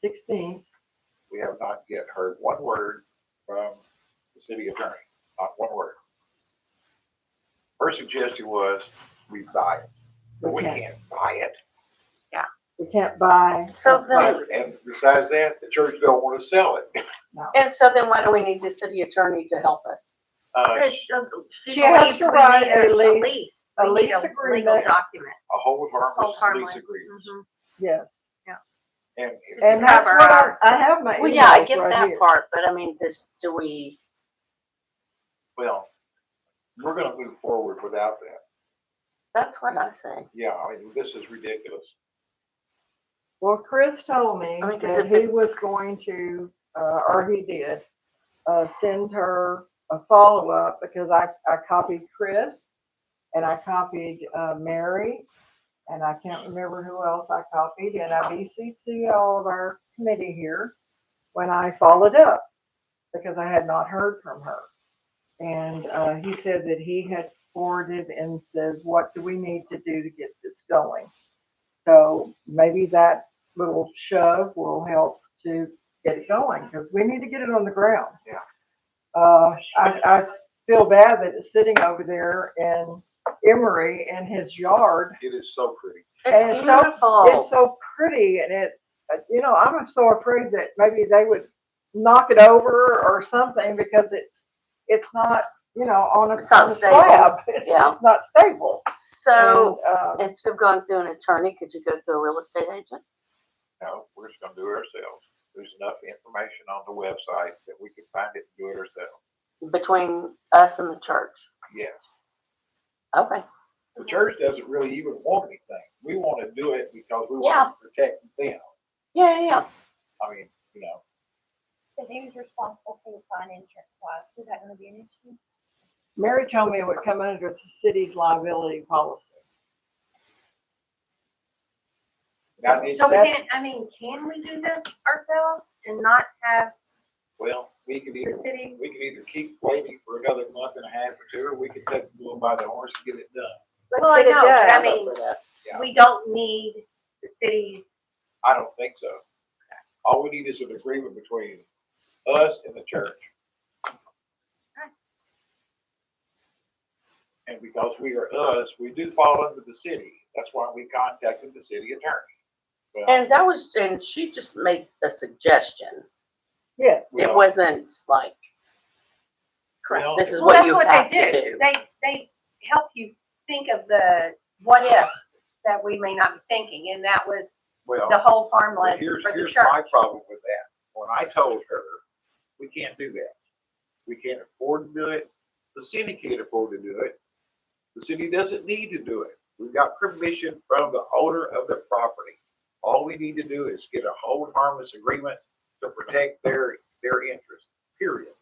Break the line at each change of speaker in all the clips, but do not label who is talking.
sixteenth.
We have not yet heard one word from the city attorney, not one word. Her suggestion was we buy it. But we
Okay.
can't buy it.
We can't buy.
So then,
And besides that, the church don't want to sell it.
and so then why do we need the city attorney to help us?
Uh,
Because,
sh-
uh, she
She has
believes
to
we
write
need
a lease- a
We need
lease
Legal
agreement.
document.
A hold harmless
Hold harmless.
lease agreement.
Mhm.
Yes.
And if-
And that's
Cover
what I,
our-
I have my
Well, yeah, I
emails
get
right
that
here.
part, but I mean, does, do we,
Well, we're gonna move forward without that.
that's what I'm saying.
Yeah, I mean, this is ridiculous.
Well, Chris told me
I mean, 'cause
that
if
he
it's-
was going to, uh, or he did, uh, send her a follow-up because I, I copied Chris and I copied, uh, Mary and I can't remember who else I copied and I BCC all of our committee here when I followed up because I had not heard from her. And, uh, he said that he had forwarded and says, what do we need to do to get this going? So maybe that little shove will help to get it going, because we need to get it on the ground.
Yeah.
Uh, I, I feel bad that it's sitting over there in Emery in his yard.
It is so pretty.
And
It's
it's so- It's
beautiful.
so pretty and it's, uh, you know, I'm so afraid that maybe they would knock it over or something because it's, it's not, you know, on a
It's not
on a
stable.
slab. It's,
Yeah.
it's not stable.
So
And, uh,
instead of going through an attorney, could you go through a real estate agent?
No, we're just gonna do it ourselves. There's enough information on the website that we can find it and do it ourselves.
Between us and the church?
Yes.
Okay,
The church doesn't really even want anything. We wanna do it because we
Yeah.
wanna protect them.
yeah, yeah, yeah.
I mean, you know,
Because he was responsible for the fine insurance wise, is that gonna be an issue?
Mary told me it would come under the city's liability policy.
that is,
So we
That's-
can't, I mean, can we do this ourselves and not have
well, we could
the
either,
city?
we could either keep waiting for another month and a half or two, or we could take the bull by the horse and get it done.
Well, I
get it
know, but I
done.
mean,
Yeah.
we don't need the city's,
I don't think so. All we need is an agreement between us and the church. And because we are us, we do fall under the city. That's why we contacted the city attorney. Well,
And that was, and she just made a suggestion.
Yes.
It
Well-
wasn't like,
well,
this is
well,
what
that's
you
what
have
they
to
do.
do.
They, they help you think of the what ifs that we may not be thinking. And that was the
Well,
whole farmland for
here's,
the
here's
church.
my problem with that. When I told her, we can't do that. We can't afford to do it. The city can't afford to do it. The city doesn't need to do it. We've got permission from the owner of the property. All we need to do is get a hold harmless agreement to protect their, their interest, period.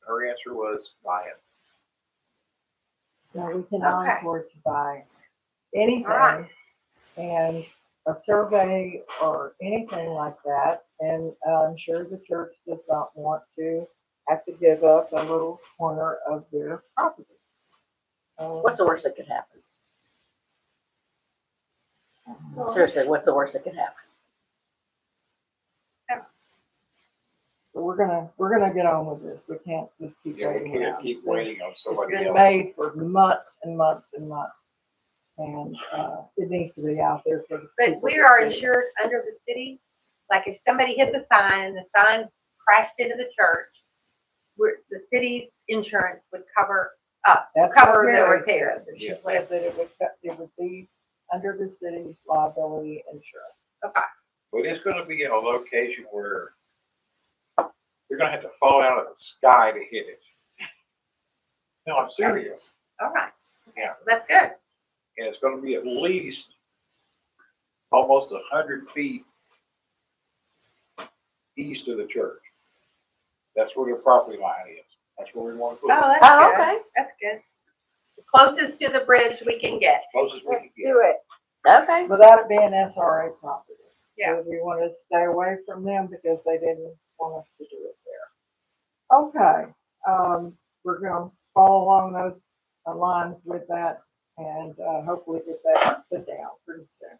Her answer was, buy it.
No, we cannot
Okay.
afford to buy
Alright.
anything and a survey or anything like that. And uh, I'm sure the church does not want to have to give up a little corner of their property. Um,
What's the worst that could happen? Seriously, what's the worst that could happen?
We're gonna, we're gonna get on with this. We can't just keep
Yeah, we
waiting.
can't
around.
keep waiting on
It's
somebody
been
else.
made for months and months and months. And, uh, it needs to be out there for the people
But
to
we are
see.
insured under the city, like if somebody hit the sign and the sign crashed into the church, we're, the city's insurance would cover up,
That's what
cover the
Mary
repairs.
said. She
Yeah.
said that it would, it would be under the city's liability insurance.
But it's gonna be in a location where they're gonna have to fall out of the sky to hit it. No, I'm serious.
All right.
Yeah.
That's good.
and it's gonna be at least almost a hundred feet east of the church. That's where the property line is. That's where we want to put it,
Oh,
Oh,
that's good.
okay.
That's good. Closest to the bridge we can get.
closest we can get.
it.
Okay,
Without it being SRA property.
Yeah.
So We want to stay away from them because they didn't want us to do it there. Okay, um, we're gonna follow along those uh, lines with that and, uh, hopefully get that put down pretty soon.